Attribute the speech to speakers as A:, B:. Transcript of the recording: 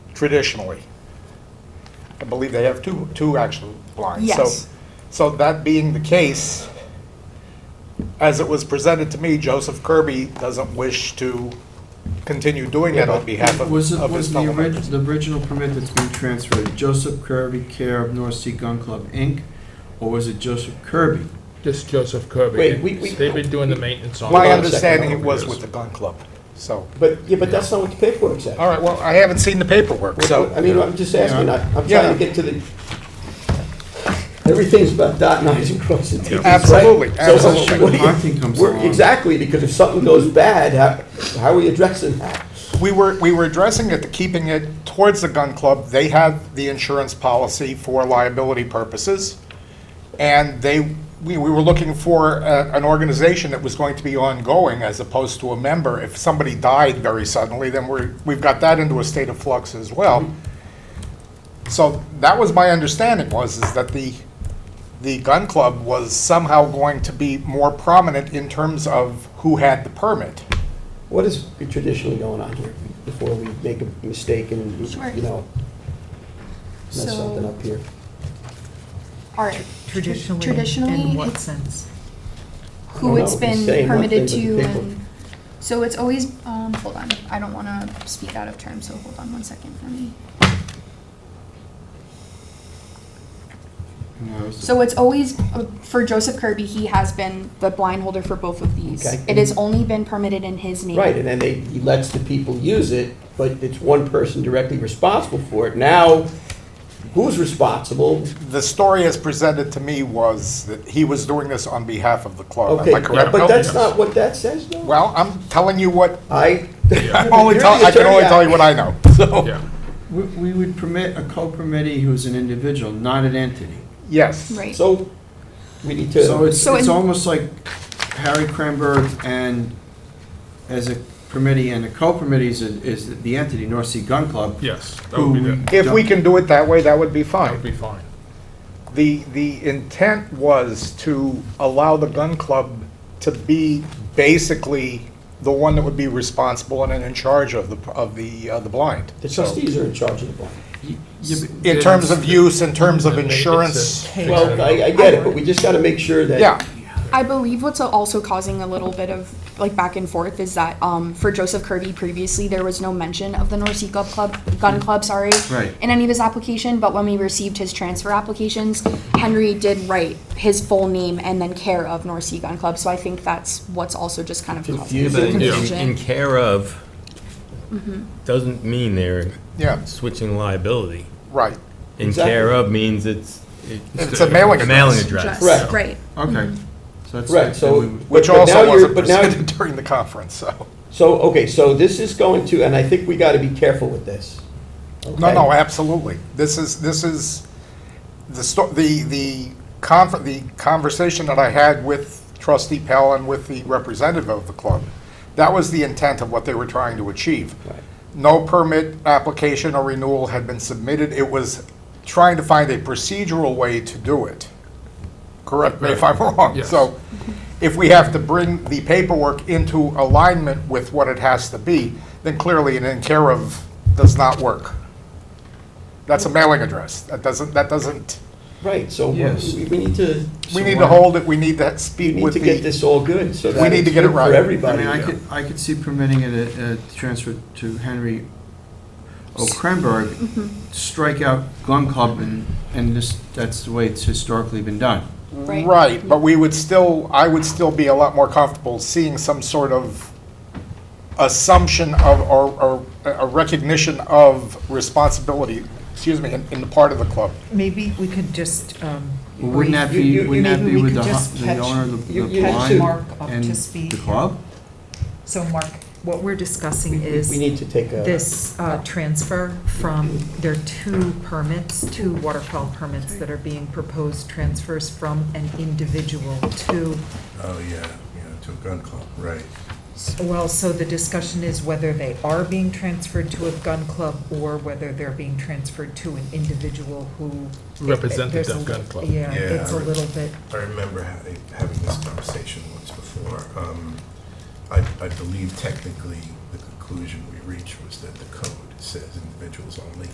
A: traditionally. I believe they have two, two actual blinds.
B: Yes.
A: So, so that being the case, as it was presented to me, Joseph Kirby doesn't wish to continue doing that on behalf of
C: Was it,
A: of
C: was
A: his
C: the
A: fellow
C: orig,
A: members.
C: the original permit that's been transferred, Joseph Kirby care of North Sea Gun Club, Inc., or was it Joseph Kirby?
D: Just Joseph Kirby.
E: Wait, we- we-
D: They've been doing the maintenance on.
A: My
D: it.
A: understanding it was with the gun club, so.
E: But, yeah, but that's not what the paperwork said.
A: All right, well, I haven't seen the paperwork,
E: So, I
A: so,
E: mean, I'm just asking, I- I'm
A: Yeah.
E: trying to get to the, everything's about dotting i's and crossing t's, right?
A: Absolutely,
E: So, uh,
A: absolutely.
E: what do you-
C: Hunting comes
E: we're-
C: along.
E: Exactly, because if something goes bad, how, how are we addressing that?
A: we were, we were addressing it, to keeping it towards the gun club. They have the insurance policy for liability purposes, and they, we, we were looking for a- an organization that was going to be ongoing as opposed to a member. If somebody died very suddenly, then we're, we've got that into a state of flux as well. So that was my understanding was, is that the, the gun club was somehow going to be more prominent in terms of who had the permit.
E: What is traditionally going on here before we make a mistake and,
B: Sure.
E: you know, mess
B: So-
E: something up here?
B: All right,
F: Traditionally?
B: Traditionally,
F: In what
B: it's-
F: sense?
B: who it's
E: Well, no, he's
B: been
E: saying one
B: permitted
E: thing,
B: to
E: but the people-
B: and, so it's always, um, hold on, I don't wanna speak out of turn, so hold on one second for me.
C: No, it was-
B: So it's always, uh, for Joseph Kirby, he has been the blind holder for both of these.
E: Okay.
B: It has only been permitted in his name.
E: Right, and then they, he lets the people use it, but it's one person directly responsible for it. Now, who's responsible?
A: The story as presented to me was that he was doing this on behalf of the club.
E: Okay,
A: Am I correct?
E: but
A: Bill?
E: that's not what that says, though.
A: Well, I'm telling you what,
E: I.
A: I'm only
E: You're
A: tell,
E: the
A: I can only
E: attorney.
A: tell you what I know, so.
D: Yeah.
C: We, we would permit a co-permittee who's an individual, not an entity.
A: Yes.
B: Right.
E: So, we need
C: So
E: to,
C: it's,
B: So
C: it's
B: in-
C: almost like Harry Cranberg and, as a permittee and a co-permittee is, is the entity, North Sea Gun Club.
D: Yes, that
C: who
D: would be
C: we
D: that.
A: If we
C: don't-
A: can do it that way, that would be
D: That would be
A: fine.
D: fine.
A: The, the intent was to allow the gun club to be basically the one that would be responsible and in charge of the, of the, uh, the blind.
E: the trustees are in charge of the bond.
C: Yeah, but-
A: In terms of use, in terms of
D: And they- it's a-
A: insurance.
D: fix it
E: Well,
D: up.
E: I, I get it, but we just gotta make sure that.
A: Yeah,
B: I believe what's also causing a little bit of like back and forth is that um, for Joseph Kirby previously there was no mention of the North Sea Club, Club Gun Club, sorry,
C: Right.
B: in any of his application. But when we received his transfer applications, Henry did write his full name and then care of North Sea Gun Club. So I think that's what's also just kind of causing
E: Yeah,
B: the
E: but in-
D: Yeah.
B: confusion.
G: In care of doesn't mean they're
A: yeah,
G: switching liability.
A: right.
G: In
E: Exactly.
G: care of means it's.
A: It's a mailing
G: A mailing
A: address.
G: address.
E: Correct.
B: Right.
C: Okay. So that's.
E: Right, so.
C: then we-
A: Which
E: but- but now
A: also
E: you're-
A: wasn't
E: but now-
A: presented during the conference, so.
E: So, okay, so this is going to, and I think we gotta be careful with this.
A: No,
E: okay?
A: no, absolutely. This is, this is, the, sto- the, the conf, the conversation that I had with trustee Pell and with the representative of the club, that was the intent of what they were trying to achieve.
E: Right.
A: No permit application or renewal had been submitted. It was trying to find a procedural way to do it. Correct me if I'm wrong.
D: Yes.
A: So if we have to bring the paperwork into alignment with what it has to be, then clearly an in care of does not work. That's a mailing address. That doesn't, that doesn't,
E: Right, so we
C: Yes.
E: we need to,
A: we
C: So
A: need to
C: why-
A: hold it, we need to
E: we
A: speak
E: need
A: with
E: to get
A: the,
E: this all good, so that.
A: need
E: it's
A: to get it
E: good
A: right. I
E: For
A: mean,
C: I
E: everybody.
C: mean, I could, I could see permitting it, a, a transfer to Henry O. Krenberg,
F: Mm-hmm.
C: strike out gun club and, and this, that's the way it's historically been done.
B: Right.
A: right, but we would still, I would still be a lot more comfortable seeing some sort of assumption of, or, or a recognition of responsibility, excuse me, in, in the part of the club.
F: Maybe we could just, um,
C: Well, Wouldn't that
E: You- you-
C: be, wouldn't
E: you-
C: that
F: maybe
C: be
F: we
C: with
F: could
C: the,
F: just
C: hu- the
F: catch-
C: owner of the-
E: you-
C: the
E: you catch
C: blind
F: Mark up to
C: and
F: speed.
C: the club?
F: so Mark, what we're discussing
E: We- We
F: is
E: need to take a.
F: this uh, transfer from, there are two permits, two waterfowl permits that are being proposed transfers from an individual to,
H: Oh, yeah, yeah, to a gun club, right.
F: well, so the discussion is whether they are being transferred to a gun club or whether they're being transferred to an individual who.
D: Represented
F: There's a
D: that gun
F: li-
D: club.
F: Yeah,
H: Yeah,
F: it's a
H: I-
F: little bit.
H: I remember having, having this conversation once before. Um, I, I believe technically the conclusion we reached was that the code says individuals only.